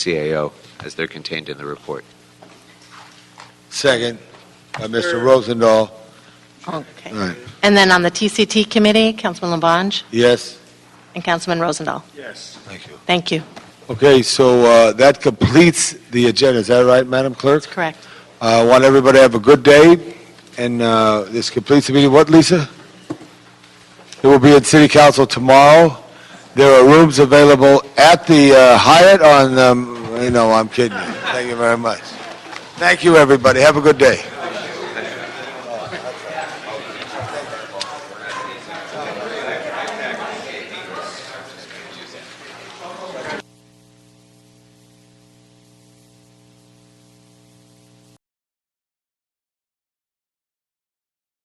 CAO as they're contained in the report. Second by Mr. Rosendahl. All Okay. right. And then on the TCT committee, Councilman Labange Yes? and Councilman Rosendahl. Yes. Thank you. Thank you. Okay, so uh, that completes the agenda. Is that right, Madam Clerk? Uh, That's correct. I want everybody to have a good day, and uh, this completes the meeting. What, Lisa? It will be at City Council tomorrow. There are rooms available at the uh, Hyatt on, um, you know, I'm kidding you. Thank you very much. Thank you, everybody. Have a good day.